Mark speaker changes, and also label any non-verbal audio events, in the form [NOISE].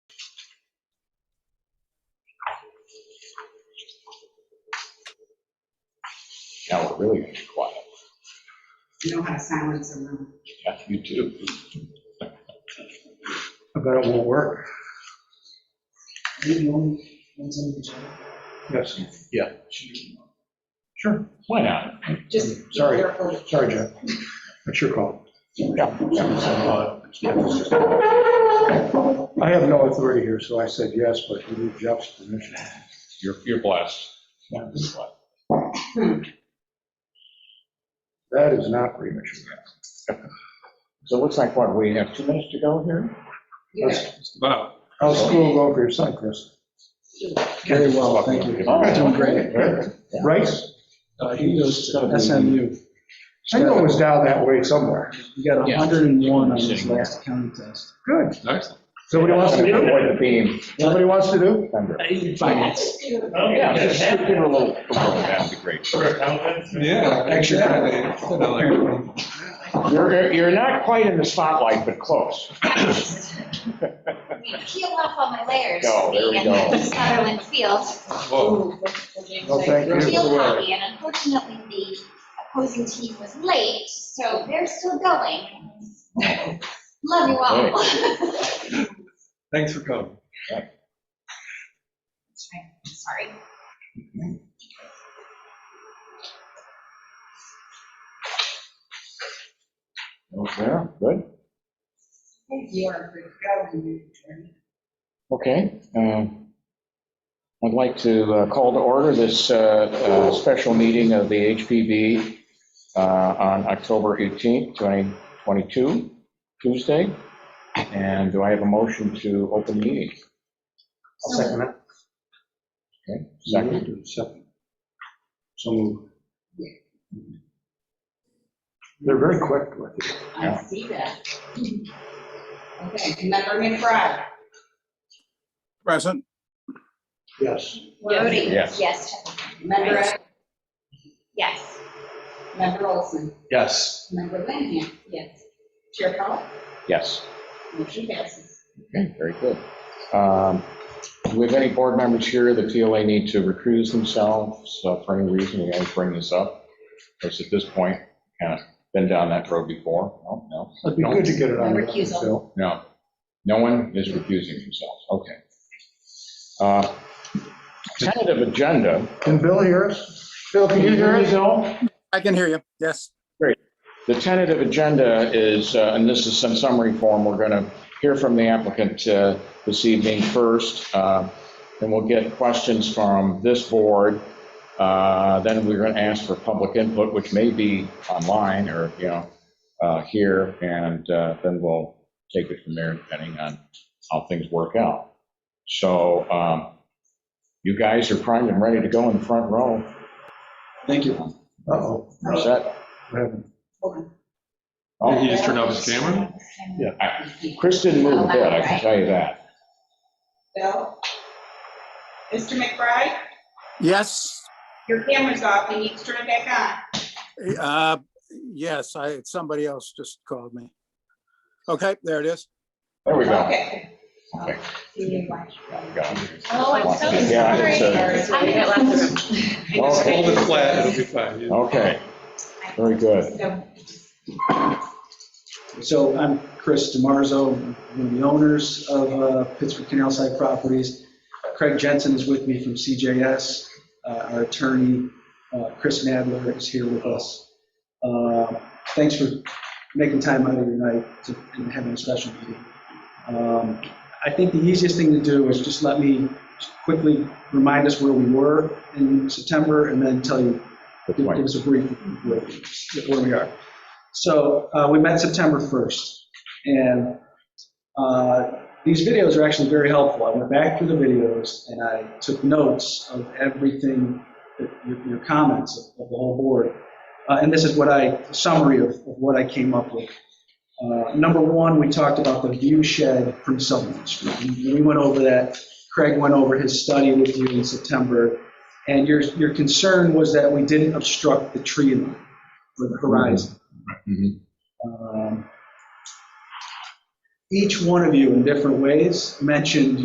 Speaker 1: Now we're really gonna be quiet.
Speaker 2: You know how to silence a room.
Speaker 1: Yeah, you do.
Speaker 3: I bet it won't work.
Speaker 2: Maybe only one's in the chair.
Speaker 3: Yes,
Speaker 1: Why not?
Speaker 2: Just.
Speaker 3: Sorry.
Speaker 2: careful.
Speaker 3: sorry, Jeff. That's your call.
Speaker 1: Yeah.
Speaker 3: I have no authority here, so I said yes, but you need Jeff's permission.
Speaker 1: You're, you're blessed.
Speaker 3: That is not premature.
Speaker 1: So it looks like, what, we have two minutes to go here?
Speaker 2: Yeah.
Speaker 4: Wow.
Speaker 3: How's school go for your son, Chris?
Speaker 4: Very well, thank you.
Speaker 3: Oh,
Speaker 4: He's
Speaker 1: Oh,
Speaker 4: doing great.
Speaker 3: Rice?
Speaker 4: Uh, He goes
Speaker 1: Gotta
Speaker 4: to
Speaker 1: be-
Speaker 4: SMU.
Speaker 3: I know it was down that way somewhere.
Speaker 4: He got
Speaker 1: Yeah.
Speaker 4: 101 on his
Speaker 1: Sitting there.
Speaker 4: last accounting test.
Speaker 3: Good.
Speaker 4: Excellent.
Speaker 3: Somebody wants to do?
Speaker 1: Avoid the beam.
Speaker 3: Somebody wants to do?
Speaker 4: Finance.
Speaker 1: Oh, Yeah, just give her a little, that'd be great.
Speaker 4: Yeah. Actually,
Speaker 1: You're, you're not quite in the spotlight, but close.
Speaker 5: I mean, peel off all my layers.
Speaker 1: No, there we
Speaker 5: being
Speaker 1: go.
Speaker 5: in Sutherland Field,
Speaker 3: No, thank
Speaker 5: field
Speaker 3: you.
Speaker 5: hockey, and unfortunately, the opposing team was late, so they're still going. Love you all.
Speaker 4: Thanks for coming.
Speaker 5: [LAUGHS] Sorry.
Speaker 1: Okay, good.
Speaker 2: You are good to go. you can.
Speaker 1: Okay. um, I'd like to uh, call to order this uh, uh, special meeting of the HPB uh, on October 18th, 2022, Tuesday. And do I have a motion to open the meeting?
Speaker 3: I'll second that.
Speaker 1: Okay, second.
Speaker 3: Second. So moved. They're very quick with it.
Speaker 2: I see that. Okay, member McBride.
Speaker 6: Present,
Speaker 3: Yes.
Speaker 2: Voting.
Speaker 1: Yes.
Speaker 5: Yes, Chuck.
Speaker 2: Member, Ed-
Speaker 5: yes.
Speaker 2: member Olson.
Speaker 4: Yes.
Speaker 2: Member Lanham. Yes. Chair Powell.
Speaker 1: Yes.
Speaker 2: Motion passes.
Speaker 1: Okay, very good. Um, Do we have any board members here that feel they need to recuse themselves uh, for any reason? We always bring this up. Because at this point, kind of been down that road before. No, no.
Speaker 3: It'd be good to get it on. the record,
Speaker 2: Recusal.
Speaker 3: Phil.
Speaker 1: No, no one is recusing themselves, okay. Uh, Tentative agenda.
Speaker 3: Can Bill hear us? Bill, can you hear us?
Speaker 6: I can hear you, yes.
Speaker 1: The tentative agenda is, uh, and this is some summary form, we're going to hear from the applicant uh, this evening first, uh, and we'll get questions from this board. Uh, Then we're going to ask for public input, which may be online or, you know, uh, here, and uh, then we'll take it from there depending on how things work out. So um, you guys are primed and ready to go in the front row.
Speaker 4: Thank you.
Speaker 3: Uh-oh.
Speaker 1: You're set?
Speaker 3: we haven't-
Speaker 1: Oh.
Speaker 4: Did he just turn off his camera?
Speaker 1: Chris didn't move a bit, I can tell you that.
Speaker 2: Bill? Mr. McBride,
Speaker 6: Yes,
Speaker 2: your camera's off. You need to turn it back
Speaker 6: uh, yes, I, somebody else just called me. Okay, there it is.
Speaker 1: There we
Speaker 2: on.
Speaker 1: go.
Speaker 2: Okay.
Speaker 1: Okay.
Speaker 2: See you later.
Speaker 5: Oh, I'm so
Speaker 1: Yeah, I
Speaker 2: didn't
Speaker 5: sorry. I didn't-
Speaker 4: Hold
Speaker 1: Okay,
Speaker 4: it flat, it'll be fine.
Speaker 1: Okay. very good.
Speaker 2: So,
Speaker 4: So I'm Chris DiMarzo, one of the owners of uh, Pittsburgh Canal Side Properties. Craig Jensen is with me from CJS. Uh, Our attorney, uh, Chris Nadler, is here with us. Uh, Thanks for making time out of your night to- and having a special meeting. Um, I think the easiest thing to do is just let me quickly remind us where we were in September and then tell you
Speaker 1: Good
Speaker 4: give give
Speaker 1: point.
Speaker 4: us a brief where- where we are. So uh, we met September 1st, and uh, these videos are actually very helpful. I went back through the videos, and I took notes of everything, that- your your comments of of the whole board. Uh, And this is what I, summary of of what I came up with. Uh, Number one, we talked about the view shed from Sullivan Street. We we went over that. Craig went over his study with you in September. And your, your concern was that we didn't obstruct the tree line or the horizon.
Speaker 1: Mhm.
Speaker 4: Um, Each one of you in different ways mentioned